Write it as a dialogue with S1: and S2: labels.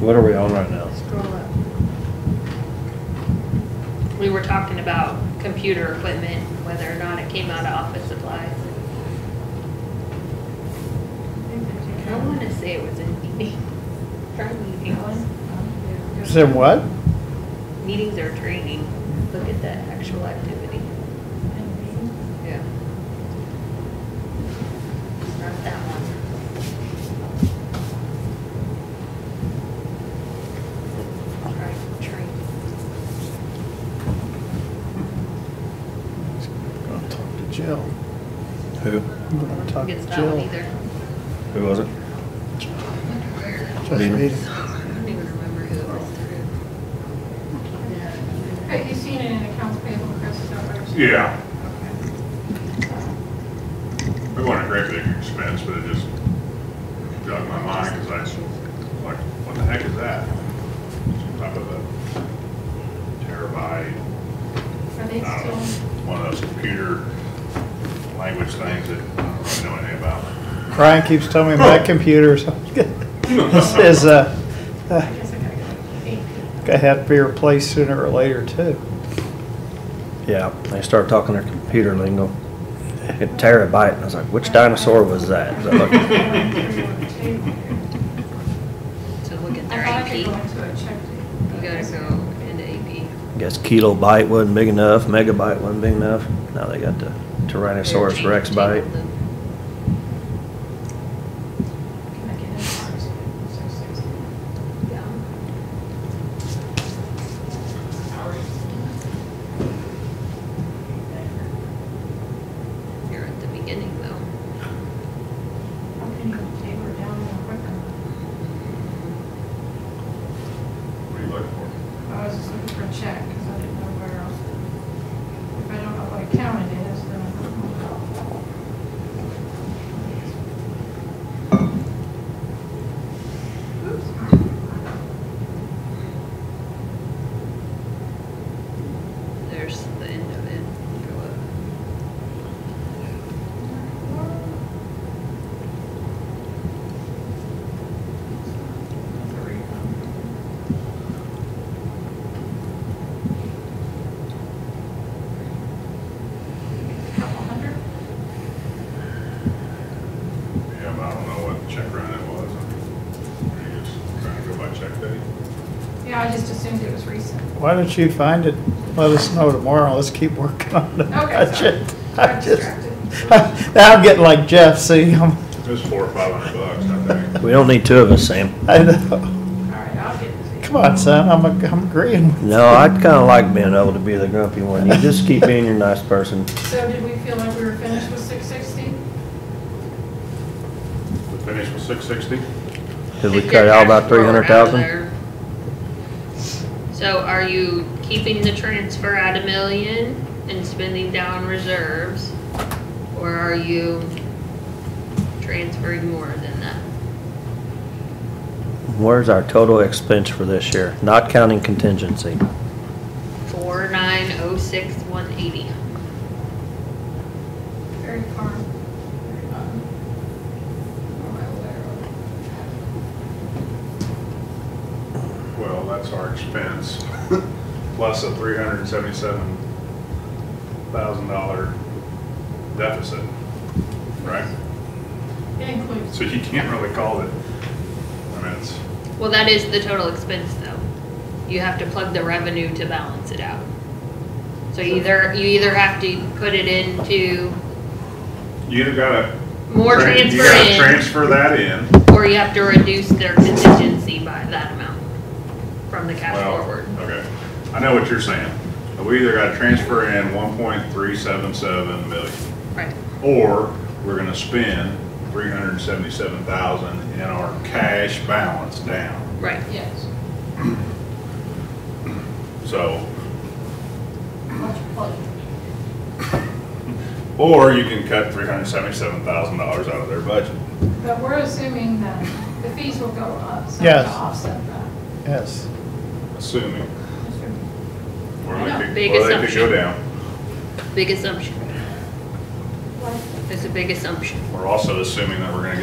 S1: what are we on right now?
S2: Scroll up. We were talking about computer equipment, whether or not it came out of office supplies. I want to say it was in meeting, our meetings.
S3: Said what?
S2: Meetings or training, look at the actual activity. Yeah. It's Not that one. Right, training.
S3: Gonna talk to Jill.
S1: Who?
S3: I'm gonna talk to
S2: Gets that one
S3: Jill.
S2: either.
S1: Who was it?
S3: Just
S1: Leader.
S3: read it.
S2: I don't even remember who it was through.
S4: Have you seen it in accounts payable, Chris, is that what you're saying?
S5: Yeah,
S4: Okay.
S5: it wasn't a great big expense, but it just jogged my mind, because I, like, what the heck is that? Some type of a terabyte,
S4: Are
S5: I don't
S1: Uh,
S4: they
S5: know,
S4: still,
S5: one of those computer language things that I don't really know anything about.
S3: Brian keeps telling me my computer is, is, uh, uh,
S4: I guess I gotta go AP.
S3: gonna have to be replaced sooner or later too.
S1: Yeah, they start talking their computer lingo. A terabyte, and I was like, which dinosaur was that? Is that like-
S2: So look at their
S4: I thought I
S2: AP.
S4: could
S2: You
S4: go into a check.
S2: gotta go into AP.
S1: Guess kilobyte wasn't big enough, megabyte wasn't big enough. Now they got the Tyrannosaurus
S2: Their
S1: Rex
S2: change
S1: bite.
S2: table,
S4: Can I get in? Six, six.
S2: the- yeah. You're at the beginning though.
S4: How can you taper it down more quicker?
S5: What are you looking for?
S4: I was just looking for a check, because I didn't know where else. If I don't know what account it is, then I don't know.
S2: There's the end of it. Go up.
S4: Couple hundred?
S5: Yeah, but I don't know what check run it was. Are you just trying to go by check day?
S4: Yeah, I just assumed it was recent.
S3: Why don't you find it? Let us know tomorrow. Let's keep working on the
S4: Okay, sorry.
S3: budget. I
S4: I'm
S3: just,
S4: distracted.
S3: now I'm getting like Jeff, see, I'm,
S5: It was four or five hundred bucks, I think.
S1: We don't need two of us, Sam.
S3: I know.
S4: All right, I'll get it.
S3: Come on, son, I'm, ag- I'm agreeing.
S1: No, I'd kinda like being able to be the grumpy one. You just keep being your nice person.
S4: So did we feel like we were finished with six sixty?
S5: We finished with six sixty?
S1: Did we
S2: If
S1: cut
S2: you're cash
S1: out about
S2: flow
S1: three
S2: out
S1: hundred
S2: of
S1: thousand?
S2: there- So are you keeping the transfer at a million and spending down reserves? Or are you transferring more than that?
S1: Where's our total expense for this year? Not counting contingency.
S2: Four nine oh six one eighty.
S4: Very calm. Very calm. Oh, my lord.
S5: Well, that's our expense, plus a three hundred and seventy-seven thousand dollar deficit, right?
S4: It includes,
S5: So you can't really call it, I mean, it's,
S2: Well, that is the total expense though. You have to plug the revenue to balance it out. So either, you either have to put it into
S5: you either gotta.
S2: more transfer
S5: tran-
S2: in.
S5: You gotta transfer that in,
S2: Or you have to reduce their contingency by that amount from the cash
S5: well,
S2: forward.
S5: okay, I know what you're saying. We either gotta transfer in one point three seven seven million,
S2: Right.
S5: or we're gonna spend three hundred and seventy-seven thousand in our cash balance down.
S2: Right.
S4: yes,
S5: So,
S4: much pleasure.
S5: Or you can cut three hundred seventy-seven thousand dollars out of their budget.
S4: But we're assuming that the fees will go up, so to
S3: Yes.
S4: offset that.
S3: Yes.
S5: Assuming. Or
S4: I know,
S5: they could,
S2: big
S5: or they could
S2: assumption.
S5: go down.
S2: Big assumption.
S4: Like
S2: It's a big assumption.
S5: We're also assuming that we're gonna get